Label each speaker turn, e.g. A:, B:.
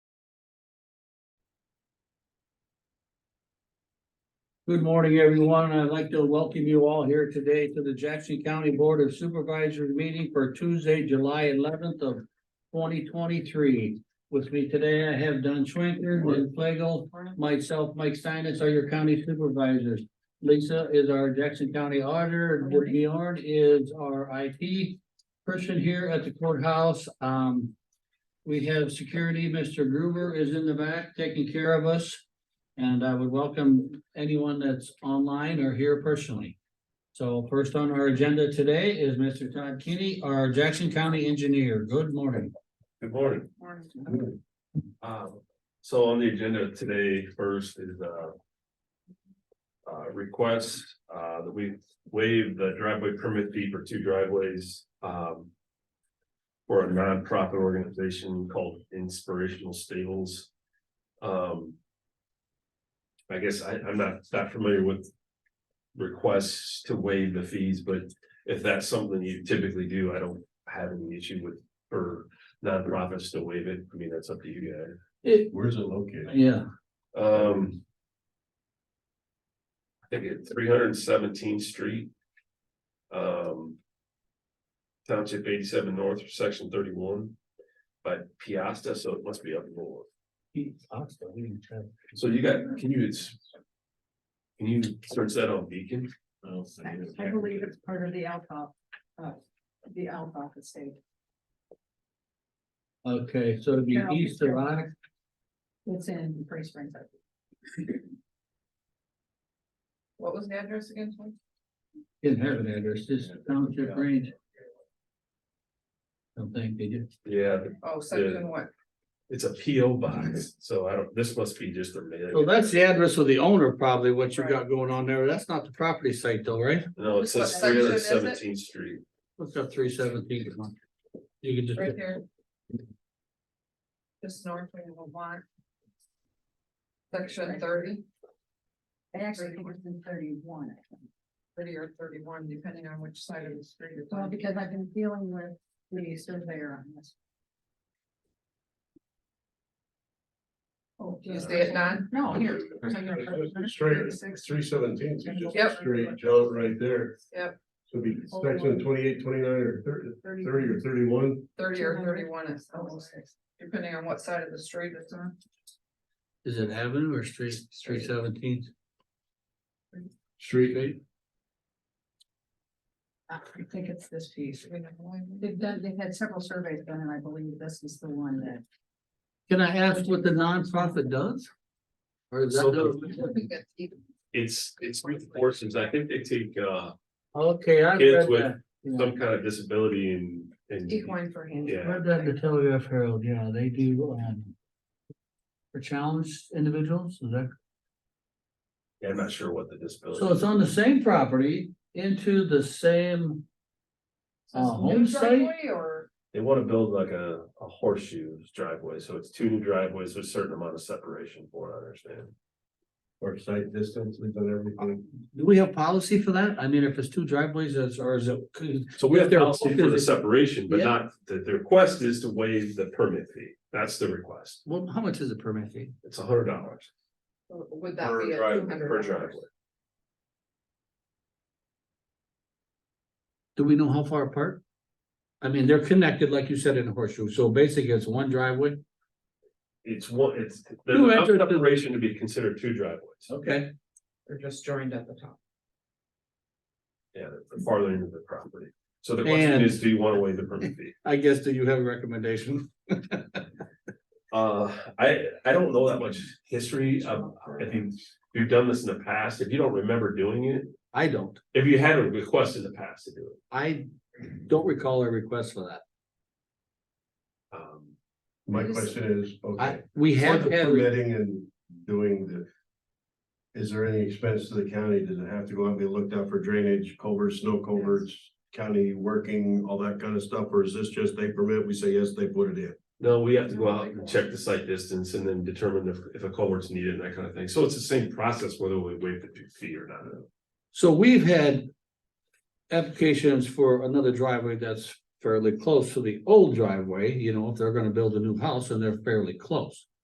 A: Good morning, everyone. I'd like to welcome you all here today to the Jackson County Board of Supervisors meeting for Tuesday, July eleventh of twenty twenty-three. With me today, I have Don Schwenker, Lynn Flagel, myself, Mike Steinitz, are your county supervisors. Lisa is our Jackson County auditor, and Whitney Ord is our IT person here at the courthouse. Um, we have security, Mr. Gruber is in the back taking care of us. And I would welcome anyone that's online or here personally. So first on our agenda today is Mr. Todd Kinney, our Jackson County engineer. Good morning.
B: Good morning. Um, so on the agenda today, first is, uh. Uh, request, uh, that we waive the driveway permit fee for two driveways, um. For a nonprofit organization called Inspirational Stables. Um. I guess I, I'm not that familiar with. Requests to waive the fees, but if that's something you typically do, I don't have any issue with, or nonprofits to waive it. I mean, that's up to you guys.
A: It-
C: Where's it located?
A: yeah,
B: Um. I think it's three hundred and seventeenth street. Um. Township eighty-seven north, section thirty-one. By Piasta, so it must be up north. So you got, can you? it's- Can you search that on Beacon?
D: I believe it's part of the Alcoff, uh, the Alcoff estate.
A: okay, so it'd be
D: Yeah.
A: east of Ox,
D: It's in Prairie Springs. What was the address again?
A: didn't have an address, just township range. Don't think they did.
B: Yeah,
D: Oh,
B: section
D: what?
B: it's a P O box, so I don't, this must be just a
A: So
B: mail.
A: that's the address of the owner, probably what you got going on there. That's not the property site though, right?
B: No, it says
D: What
B: three
D: section
B: hundred and
D: is it?
B: seventeenth street.
A: What's up three seventeen? You could just.
D: there. Just north of Lamont. Section thirty? Actually, I think it's in thirty-one. Thirty or thirty-one, depending on which side of the street. Well, because I've been dealing with the surveyor on this. Oh,
B: Is
D: it none? No, Oh, here.
C: Straight, three seventeen, so just
D: Yep.
C: straight jump right there.
D: Yep.
C: So it'd be section twenty-eight, twenty-nine, or thirty, thirty or thirty-one.
D: Thirty or
E: 200.
D: thirty-one is almost, depending on what side of the street it's on.
A: Is it Avenue or Street, Street Seventeen?
C: Street.
D: I think it's this piece. They've done, they've had several surveys done, and I believe this is the one that.
A: Can I ask what the nonprofit does? Or is that?
B: It's, it's three portions. I think they take, uh.
A: Okay, I
B: Kids
A: read
B: with
A: that. Yeah.
B: some kind of disability and, and.
D: Equine for him.
B: Yeah.
A: Read that in the Telegraph Herald, yeah, they do, um. For challenged individuals, is that,
B: Yeah, I'm not sure what the disability.
A: so it's on the same property into the same. Uh, home site,
D: Or,
B: They want to build like a, a horseshoe driveway, so it's two new driveways, there's a certain amount of separation, from what I understand.
C: Or site distance, we've done everything.
A: do we have policy for that? I mean, if it's two driveways, that's, or is it?
B: So we have
A: They're-
B: policy for the separation, but
A: Yeah.
B: not, the, the request is to waive the permit fee. That's the request.
A: Well, how much is a permit fee?
B: It's a hundred dollars.
D: would that
B: Per
D: be?
B: drive- per driveway.
A: Do we know how far apart? I mean, they're connected, like you said, in a horseshoe, so basically it's one driveway.
B: It's one, it's, there's
A: Who
B: enough
A: entered the-
B: separation to be considered two driveways.
A: Okay.
D: They're just joined at the top.
B: Yeah, the farther into the property. So the question
A: And-
B: is, do you want to waive the permit fee?
A: I guess, do you have a recommendation?
B: Uh, I, I don't know that much history of, if you, if you've done this in the past, if you don't remember doing it,
A: I don't,
B: if you had a request in the past to do it.
A: I don't recall a request for that.
B: Um,
C: My question is,
A: I,
C: okay.
A: we
C: for
A: have
C: the
A: had,
C: Permitting and doing the. Is there any expense to the county? Does it have to go out and be looked out for drainage, culverts, snow culverts? County working, all that kind of stuff, or is this just they permit, we say yes, they put it in?
B: no, we have to go out and check the site distance and then determine if, if a culvert's needed and that kind of thing. So it's the same process whether we waive the fee or not.
A: so we've had applications for another driveway that's fairly close to the old driveway, you know, if they're gonna build a new house and they're fairly close.